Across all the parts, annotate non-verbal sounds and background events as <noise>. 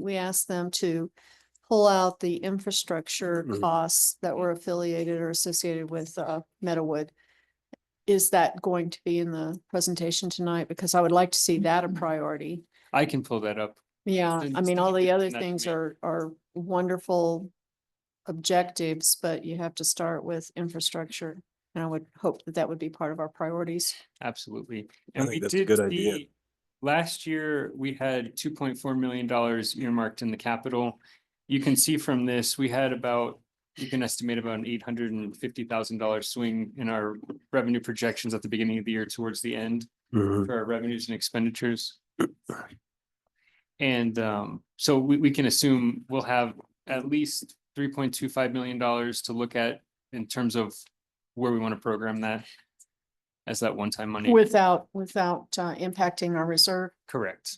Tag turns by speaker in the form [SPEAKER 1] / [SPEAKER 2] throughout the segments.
[SPEAKER 1] we asked them to pull out the infrastructure
[SPEAKER 2] Mhm.
[SPEAKER 1] costs that were affiliated or associated with uh Meadowood. Is that going to be in the presentation tonight? Because I would like to see that a priority.
[SPEAKER 2] I can pull that up.
[SPEAKER 1] Yeah, I
[SPEAKER 2] Didn't
[SPEAKER 1] mean, all
[SPEAKER 2] see
[SPEAKER 1] the
[SPEAKER 2] it,
[SPEAKER 1] other
[SPEAKER 2] not
[SPEAKER 1] things
[SPEAKER 2] me.
[SPEAKER 1] are are wonderful objectives, but you have to start with infrastructure. And I would hope that that would be part of our priorities.
[SPEAKER 2] Absolutely.
[SPEAKER 3] I
[SPEAKER 2] And
[SPEAKER 3] think
[SPEAKER 2] we
[SPEAKER 3] that's a
[SPEAKER 2] did
[SPEAKER 3] good idea.
[SPEAKER 2] see, last year, we had two point four million dollars earmarked in the capital. You can see from this, we had about, you can estimate about an eight hundred and fifty thousand dollar swing in our revenue projections at the beginning of the year towards the end for our revenues and expenditures. And um, so we, we can assume we'll have at least three point two five million dollars to look at in terms of where we want to program that as that one-time money.
[SPEAKER 1] Without, without uh, impacting our reserve.
[SPEAKER 2] Correct.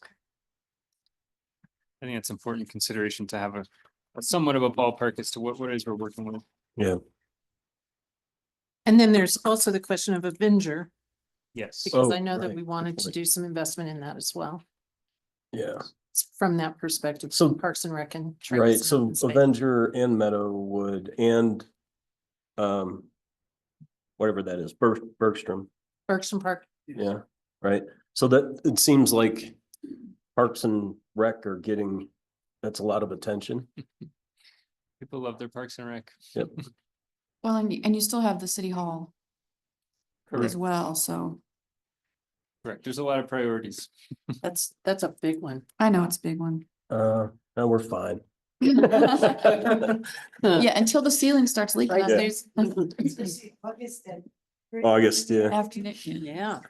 [SPEAKER 2] I think it's important consideration to have a a somewhat of a ballpark as to what, what it is we're working with.
[SPEAKER 4] And then there's also the question of Avenger,
[SPEAKER 2] Yes.
[SPEAKER 4] because
[SPEAKER 3] Oh,
[SPEAKER 4] I know that
[SPEAKER 3] right.
[SPEAKER 4] we wanted to
[SPEAKER 3] point.
[SPEAKER 4] do some investment in that as well.
[SPEAKER 3] Yeah,
[SPEAKER 4] It's From that perspective,
[SPEAKER 3] So-
[SPEAKER 4] Parks and Rec and. Trails
[SPEAKER 3] right.
[SPEAKER 4] and
[SPEAKER 3] So
[SPEAKER 4] open space.
[SPEAKER 3] Avenger and Meadowwood and um whatever that is, Berg- Bergstrom, <laughs>
[SPEAKER 4] Bergstrom Park,
[SPEAKER 3] yeah, right? So that, it seems like Parks and Rec are getting, that's a lot of attention.
[SPEAKER 2] People love their Parks and Rec.
[SPEAKER 3] Yep.
[SPEAKER 5] Well, and you, and you still have the city hall as
[SPEAKER 2] Correct,
[SPEAKER 5] well, so
[SPEAKER 2] correct. There's a lot of priorities.
[SPEAKER 4] that's, that's a big one.
[SPEAKER 5] I know it's a big one.
[SPEAKER 3] Uh, no, we're
[SPEAKER 2] <laughs>
[SPEAKER 3] fine. <laughs>
[SPEAKER 5] Yeah, until the ceiling starts leaking
[SPEAKER 4] <laughs> Right.
[SPEAKER 5] up,
[SPEAKER 3] Yeah.
[SPEAKER 5] there's.
[SPEAKER 3] August, yeah.
[SPEAKER 5] After next year.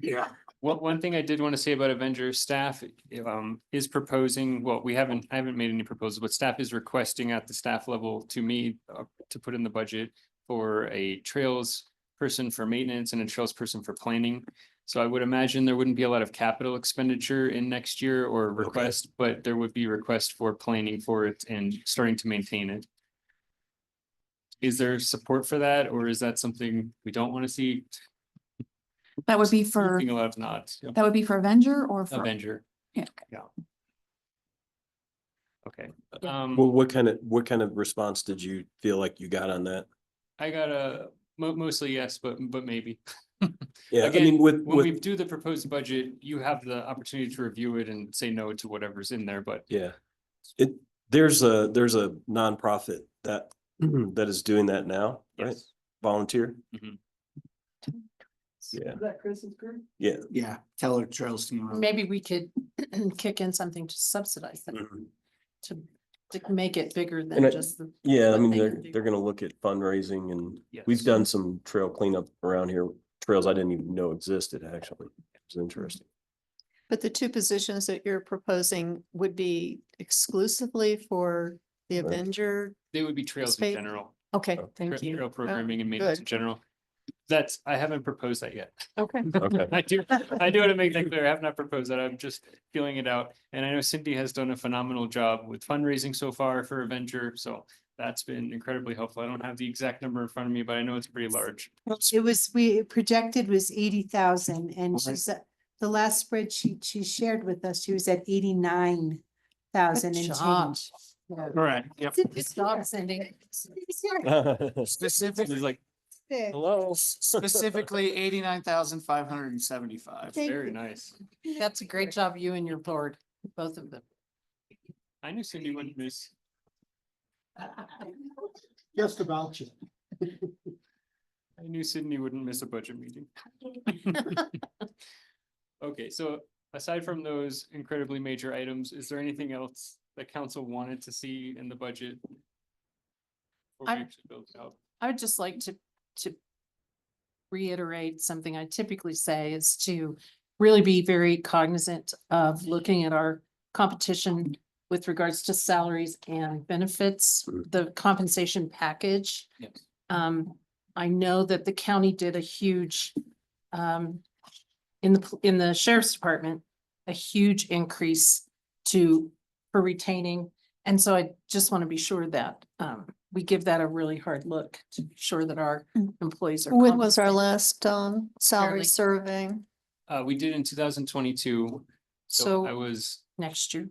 [SPEAKER 4] Yeah.
[SPEAKER 2] One, one thing I did want to say about Avenger, staff um is proposing, well, we haven't, I haven't made any proposals, but staff is requesting at the staff level to me uh, to put in the budget for a trails person for maintenance and a trails person for planning. So I would imagine there wouldn't be a lot of capital expenditure in next year or request, but there would be request for planning for it and starting to maintain it. Is there support for that, or is that something we don't want to see?
[SPEAKER 5] That would be for,
[SPEAKER 2] Getting A lot of nods.
[SPEAKER 5] that would be for Avenger or for,
[SPEAKER 2] Avenger.
[SPEAKER 5] Yeah,
[SPEAKER 2] Yeah. Okay,
[SPEAKER 4] Yeah.
[SPEAKER 3] Well,
[SPEAKER 2] um,
[SPEAKER 3] what kind of, what kind of response did you feel like you got on that?
[SPEAKER 2] I got a, mo- mostly yes, but, but maybe.
[SPEAKER 3] Yeah, I
[SPEAKER 2] Again,
[SPEAKER 3] mean, with,
[SPEAKER 2] When we
[SPEAKER 3] with,
[SPEAKER 2] do the proposed budget, you have the opportunity to review it and say no to whatever's in there, but
[SPEAKER 3] yeah. It, there's a, there's a nonprofit that, <clears throat> that is doing that now, right?
[SPEAKER 2] yes.
[SPEAKER 3] Volunteer?
[SPEAKER 2] Mhm.
[SPEAKER 3] Yeah,
[SPEAKER 1] that Chris's group?
[SPEAKER 3] yeah.
[SPEAKER 6] Yeah, Keller Trails tomorrow.
[SPEAKER 3] Um,
[SPEAKER 4] Maybe we could <clears throat> kick in something to subsidize that,
[SPEAKER 3] Mhm.
[SPEAKER 4] to, to make it bigger
[SPEAKER 3] And I-
[SPEAKER 4] than just the.
[SPEAKER 3] Yeah, I
[SPEAKER 4] What
[SPEAKER 3] mean,
[SPEAKER 4] they
[SPEAKER 3] they're,
[SPEAKER 4] can do.
[SPEAKER 3] they're gonna look at fundraising and we've
[SPEAKER 2] Yes.
[SPEAKER 3] done some trail cleanup around here, trails I didn't even know existed, actually. It's interesting.
[SPEAKER 4] <laughs>
[SPEAKER 1] But the two positions that you're proposing would be exclusively for the
[SPEAKER 3] Right.
[SPEAKER 1] Avenger?
[SPEAKER 2] They would be trails in
[SPEAKER 1] Spade.
[SPEAKER 2] general,
[SPEAKER 1] Okay,
[SPEAKER 3] Oh,
[SPEAKER 2] tra-
[SPEAKER 1] thank you. Oh,
[SPEAKER 2] trail programming and maintenance
[SPEAKER 1] good.
[SPEAKER 2] in general. That's, I haven't proposed that yet.
[SPEAKER 1] Okay.
[SPEAKER 3] Okay.
[SPEAKER 2] I do, I do want to make that clear. I have not proposed that. I'm just feeling it out. And I know Cindy has done a phenomenal job with fundraising so far for Avenger, so that's been incredibly helpful. I don't have the exact number in front of me, but I know it's pretty large.
[SPEAKER 7] It was, we projected was eighty thousand and
[SPEAKER 6] Right.
[SPEAKER 7] she's, at- the last spreadsheet she shared with us, she was at eighty-nine thousand
[SPEAKER 4] Good
[SPEAKER 7] and
[SPEAKER 4] job.
[SPEAKER 7] change. Yeah.
[SPEAKER 2] Right, yep.
[SPEAKER 4] Good job, Cindy.
[SPEAKER 6] Specific,
[SPEAKER 2] It's like,
[SPEAKER 3] Hello.
[SPEAKER 6] specifically eighty-nine thousand five hundred and seventy-five.
[SPEAKER 7] Thank
[SPEAKER 2] very
[SPEAKER 7] you.
[SPEAKER 2] nice.
[SPEAKER 4] That's a great job, you and your board, both of them.
[SPEAKER 2] I knew Cindy wouldn't miss.
[SPEAKER 6] Just about you. <laughs>
[SPEAKER 2] I knew Sydney wouldn't miss a budget meeting. Okay, so aside from those incredibly major items, is there anything else that council wanted to see in the budget? Before we
[SPEAKER 4] I-
[SPEAKER 2] actually build it out?
[SPEAKER 4] I would just like to, to reiterate something I typically say is to really be very cognizant of looking at our competition with regards to salaries and benefits,
[SPEAKER 3] Mm.
[SPEAKER 4] the compensation package.
[SPEAKER 2] Yes.
[SPEAKER 4] Um, I know that the county did a huge, um, in the, pl- in the sheriff's department, a huge increase to, for retaining. And so I just want to be sure that, um, we give that a really hard look to be sure that our
[SPEAKER 1] Mm.
[SPEAKER 4] employees are.
[SPEAKER 1] When was our
[SPEAKER 4] compensated.
[SPEAKER 1] last um salary
[SPEAKER 4] Fairly.
[SPEAKER 1] survey?
[SPEAKER 2] Uh, we did in two thousand twenty-two. So I
[SPEAKER 4] So
[SPEAKER 2] was
[SPEAKER 4] next year.